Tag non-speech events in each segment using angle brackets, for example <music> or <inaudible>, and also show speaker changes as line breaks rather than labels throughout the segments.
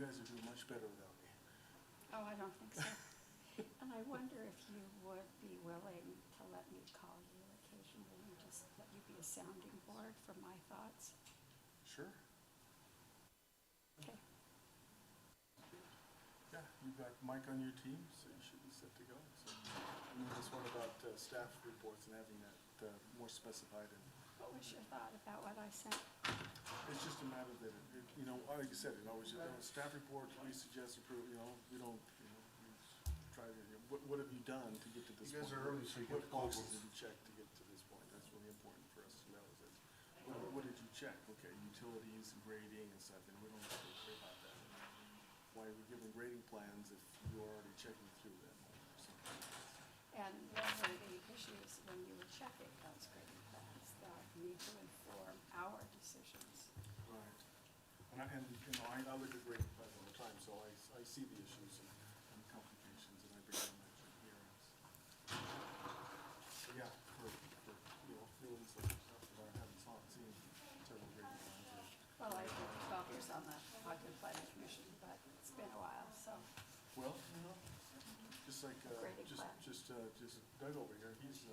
guys would do much better without me.
Oh, I don't think <laughs> so. And I wonder if you would be willing to let me call you occasionally and just let you be a sounding board for my thoughts?
Sure.
Okay,
Yeah, you've got Mike on your team, so you should be set to go. So, and then this one about uh, staff reports and having that uh, more specified and
what was your thought about what I sent?
It's just a matter that, it- it- you know, like you said, it always, you know, staff report, we suggest approve, you know, we don't, you know, we just try to, you know, what, what have you done to get to this
You
point?
guys are early, so you get
What
the cold
boxes
ones.
did you check to get to this point? That's really important for us to know, is that, what, what did you check? Okay, utilities, grading and stuff, and we don't have to worry about that. Why are we giving grading plans if you're already checking through them or something?
And what were the issues when you were checking those grading plans that need to inform our decisions?
Right. And I, and, you know, I, I look at grading plans all the time, so I, s- I see the issues and, and complications, and I bring them up to here. So, yeah, for, for, you know, feelings like stuff that I haven't saw, seen several grading plans. or-
Well, I did twelve years on the Ogden Planning Commission, but it's been a while, so,
Well, you know, just like, uh,
Grading
just,
plan.
just, uh, just Doug over here, he's, uh,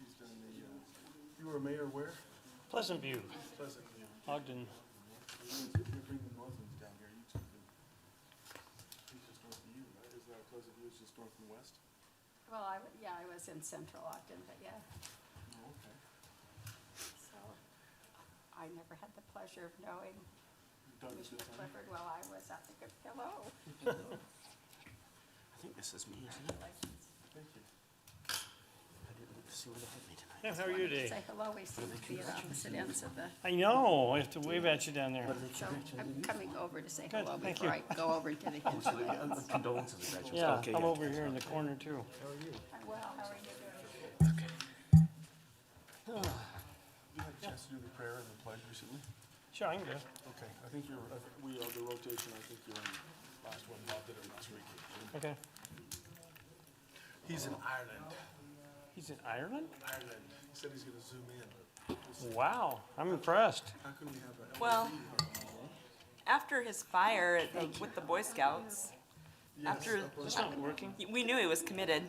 he's done the, uh, you were mayor where?
Pleasant View,
Pleasant View.
Ogden.
If you bring the northerns down here, you two can, he's just north of you, right? Is that Pleasant View, it's just north and west?
well, I, w- yeah, I was in central Ogden, but yeah,
Oh, okay.
so I never had the pleasure of knowing
Doug is
Commissioner
this on?
Clifford while I was at the Good Pillow.
I think this is me, isn't it?
Congratulations.
Thank you.
I didn't look to see what had me tonight.
Yeah, how are you today?
Say hello, we seem to be at opposite ends of the,
I know, I have to wave at you down there.
so I'm coming over to say
Good,
hello
thank
before I go over
<laughs>
to the
Oh, so you-
hinterland.
uh, Condolences, I bet you.
Yeah,
Okay,
I'm
yeah.
over here in the corner too.
Well, how are you doing?
You had a chance to do the prayer and the pledge recently?
Sure, I can go.
Okay, I think you're, I think we are the rotation, I think you're in last one, Bob did it last week.
Okay.
He's in Ireland,
He's in Ireland?
Ireland. He said he's gonna zoom in.
Wow, I'm impressed.
How can we have a
Well, after his fire at the, with the Boy Scouts, after
It's not working?
we knew he was committed.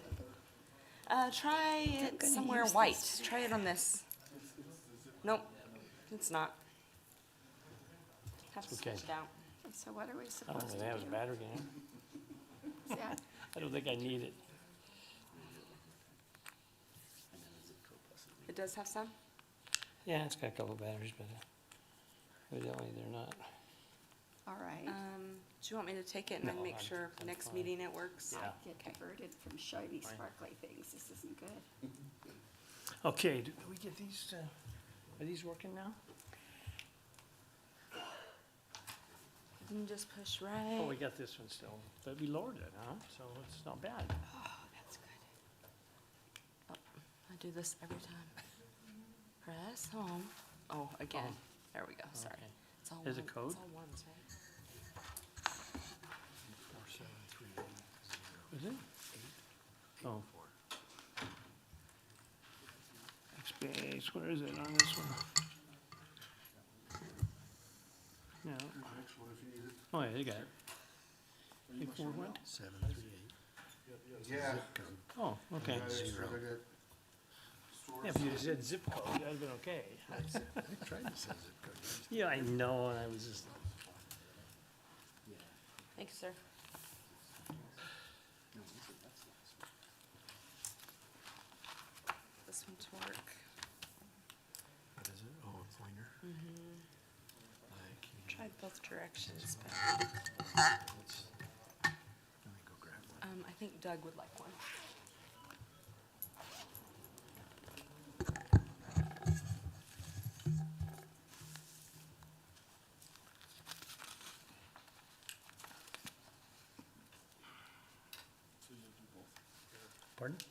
Uh, try it
gonna
somewhere
use
white. Try it on this. Nope, it's not. Have to
Okay.
switch it out.
So what are we
I don't
supposed to
think
do?
that was battery in it.
Is that-
I don't think I need it.
It does have some.
Yeah, it's got a couple batteries, but uh, evidently they're not.
All
Um,
right.
do you want me to take it and
No,
then make
I'm-
sure
I'm
next
fine.
meeting it works?
Yeah.
Get diverted from shiny sparkly things. This isn't good.
Okay, do do we get these, uh, are these working now?
You just push right.
Oh, we got this one still, but we lowered it, huh? So it's not bad.
Oh, that's good. Oh, I do this every time. Press home. Oh, again. There we go. Sorry.
Oh, Okay.
It's all
There's a
one-
code?
It's all ones, right?
Is it? Oh. Space, where is it on this one? No,
Actually, if you need it.
oh yeah, they got it. Big four one?
Seven, three, eight,
Yeah.
Oh, okay.
Zero.
Yeah, if you said zip code, that'd have been okay.
I tried to say zip code.
<laughs> Yeah, I know, and I was just,
Thanks, sir. This one's work.
What is it? Oh, a pointer?
Mm-hmm.
Like, you just-
Tried both directions, but
let me go grab one.
um, I think Doug would like one.
pardon?